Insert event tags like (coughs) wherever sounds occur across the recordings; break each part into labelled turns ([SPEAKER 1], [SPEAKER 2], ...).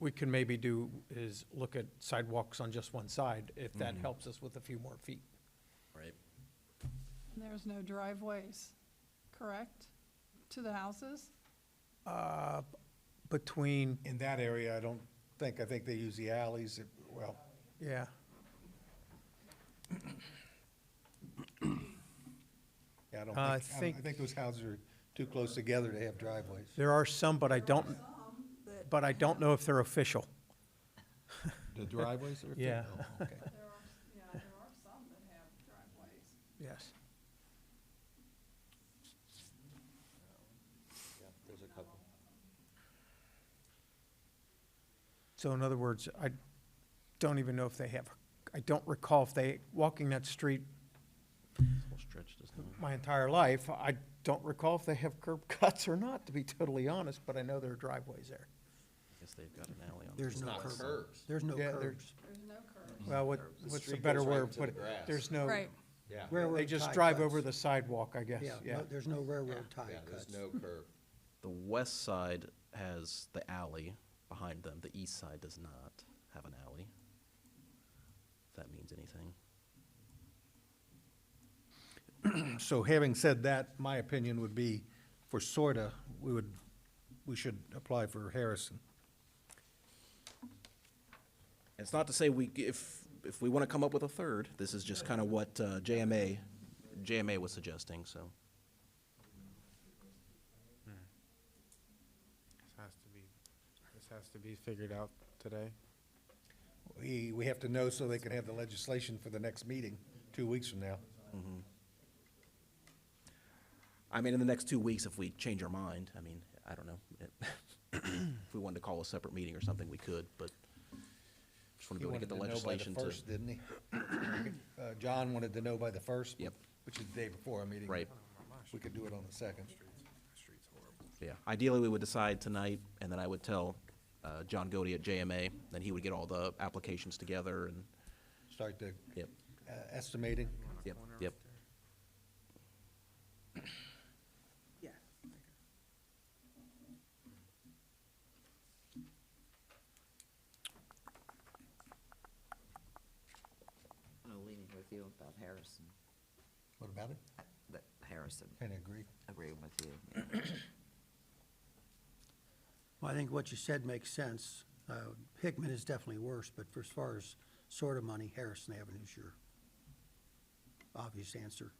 [SPEAKER 1] we can maybe do is look at sidewalks on just one side, if that helps us with a few more feet.
[SPEAKER 2] right?
[SPEAKER 3] There's no driveways, correct, to the houses?
[SPEAKER 1] Uh, Between,
[SPEAKER 4] In that area, I don't think, I think they use the alleys, it- well,
[SPEAKER 1] yeah,
[SPEAKER 4] yeah, I
[SPEAKER 1] Uh,
[SPEAKER 4] don't think,
[SPEAKER 1] I
[SPEAKER 4] I don't- I
[SPEAKER 1] think-
[SPEAKER 4] think those houses are too close together to have driveways.
[SPEAKER 1] there are some, but I don't,
[SPEAKER 3] that-
[SPEAKER 1] but I don't know if they're official.
[SPEAKER 4] The driveways are?
[SPEAKER 1] Yeah.
[SPEAKER 4] Oh, okay.
[SPEAKER 3] There are, yeah, there are some that have driveways.
[SPEAKER 1] Yes.
[SPEAKER 2] There's a couple.
[SPEAKER 1] So in other words, I don't even know if they have, I don't recall if they, walking that street
[SPEAKER 2] Whole stretch does not.
[SPEAKER 1] my entire life, I don't recall if they have curb (laughs) cuts or not, to be totally honest, but I know there are driveways there.
[SPEAKER 2] I guess they've got an alley on.
[SPEAKER 5] There's
[SPEAKER 2] this
[SPEAKER 5] no
[SPEAKER 2] side.
[SPEAKER 5] curbs. There's no
[SPEAKER 1] Yeah, there's-
[SPEAKER 5] curbs.
[SPEAKER 3] There's no curbs.
[SPEAKER 1] Well, what,
[SPEAKER 2] Curbs. The
[SPEAKER 1] what's the
[SPEAKER 2] Mm-hmm. street
[SPEAKER 1] better
[SPEAKER 2] goes right
[SPEAKER 1] way of
[SPEAKER 2] to the
[SPEAKER 1] putting it?
[SPEAKER 2] grass.
[SPEAKER 1] There's no,
[SPEAKER 3] Right,
[SPEAKER 2] Yeah.
[SPEAKER 1] they
[SPEAKER 5] Railroad
[SPEAKER 1] just
[SPEAKER 5] tie
[SPEAKER 1] drive
[SPEAKER 5] cuts.
[SPEAKER 1] over the sidewalk, I guess,
[SPEAKER 5] Yeah,
[SPEAKER 1] yeah.
[SPEAKER 5] no- there's no railroad tie cuts.
[SPEAKER 6] curb.
[SPEAKER 2] The west side has the alley behind them. The east side does not have an alley. If that means anything.
[SPEAKER 4] (laughs) So having said that, my opinion would be for sorta, we would, we should apply for Harrison.
[SPEAKER 2] It's not to say we, if, if we want to come up with a third, this is just kind of what uh, JMA, JMA was suggesting, so.
[SPEAKER 7] This has to be, this has to be figured out today.
[SPEAKER 4] We, we have to know so they can have the legislation for the next meeting, two weeks from now.
[SPEAKER 2] I mean, in the next two weeks, if we change our mind, I mean, I don't know. (coughs) If we wanted to call a separate meeting or something, we could, but just want
[SPEAKER 4] He
[SPEAKER 2] to be able to
[SPEAKER 4] wanted
[SPEAKER 2] get the
[SPEAKER 4] to know by the
[SPEAKER 2] legislation to.
[SPEAKER 4] first, didn't he? (coughs) Uh, John wanted to know by the first.
[SPEAKER 2] Yep.
[SPEAKER 4] Which is the day before our meeting.
[SPEAKER 2] Right.
[SPEAKER 4] We could do it on the second.
[SPEAKER 2] Yeah, ideally, we would decide tonight, and then I would tell uh, John Godey at JMA, then he would get all the applications together and,
[SPEAKER 4] Start the
[SPEAKER 2] yep,
[SPEAKER 4] uh, estimating.
[SPEAKER 2] yep, yep.
[SPEAKER 5] Yeah.
[SPEAKER 8] I'm leaning with you about Harrison,
[SPEAKER 4] What about it?
[SPEAKER 8] uh, that Harrison,
[SPEAKER 4] Kind of agree.
[SPEAKER 8] agreeing with you.
[SPEAKER 5] Well, I think what you said makes sense. Uh, Hickman is definitely worse, but for as far as sort of money, Harrison Avenue is your obvious answer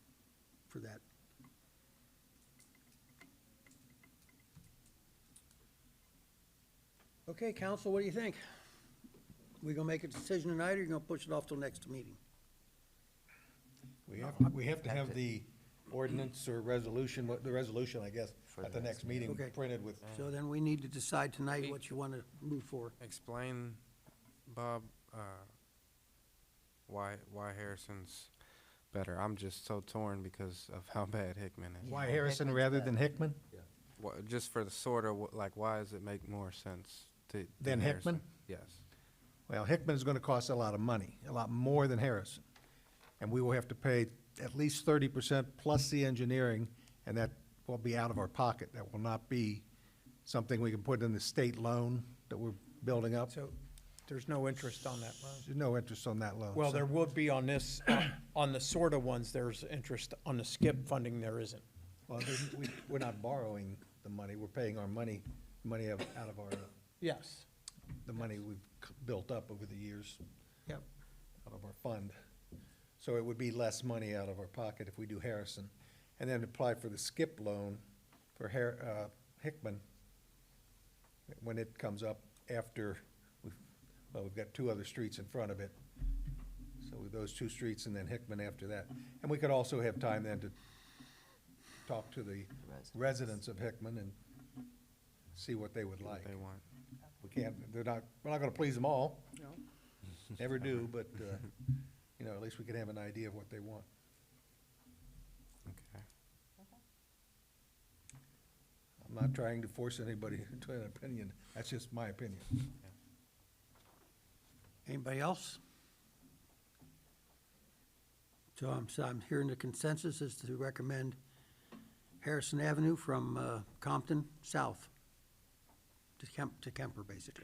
[SPEAKER 5] for that. Okay, council, what do you think? We gonna make a decision tonight, or you gonna push it off till next meeting?
[SPEAKER 4] We have, we have to have the ordinance or resolution, what- the resolution, I guess, at the next meeting
[SPEAKER 5] Okay.
[SPEAKER 4] printed with,
[SPEAKER 5] So then we need to decide tonight what you wanna move for.
[SPEAKER 7] Explain, Bob, uh, why, why Harrison's better. I'm just so torn because of how (laughs) bad Hickman is.
[SPEAKER 4] why Harrison rather than Hickman?
[SPEAKER 7] Wha just for the sort of, wh- like, why does it make more sense to? to
[SPEAKER 4] Than Hickman?
[SPEAKER 7] Harrison? Yes.
[SPEAKER 4] Well, Hickman is going to cost a lot of money, a lot more than Harrison. And we will have to pay at least thirty percent plus the engineering, and that will be out of our pocket. That will not be something we can put in the state loan that we're building up.
[SPEAKER 1] So there's no interest on that loan.
[SPEAKER 4] There's no interest on that loan.
[SPEAKER 1] Well,
[SPEAKER 4] so-
[SPEAKER 1] there would be on this, (coughs) on the sorta ones, there's interest. On the skip funding, there isn't.
[SPEAKER 4] Well, there's- we, we're not borrowing the money, we're paying our money, money of- out of our,
[SPEAKER 1] Yes.
[SPEAKER 4] the money we've c- built up over the years,
[SPEAKER 1] Yep.
[SPEAKER 4] out of our fund. So it would be less money out of our pocket if we do Harrison. And then apply for the skip loan for Har, uh, Hickman, when it comes up after, we've, well, we've got two other streets in front of it. So with those two streets and then Hickman after that. And we could also have time then to talk to the
[SPEAKER 8] Residents.
[SPEAKER 4] residents of Hickman and see what they would like.
[SPEAKER 7] They want.
[SPEAKER 4] We can't, they're not, we're not gonna please them all. Never do, but, uh, you know, at least we can have an idea of what they want.
[SPEAKER 7] Okay.
[SPEAKER 4] I'm not trying to force anybody (laughs) into an opinion, that's just my opinion.
[SPEAKER 5] Anybody else? So I'm, so I'm hearing the consensus is to recommend Harrison Avenue from uh, Compton south to Kemp, to Kemper, basically.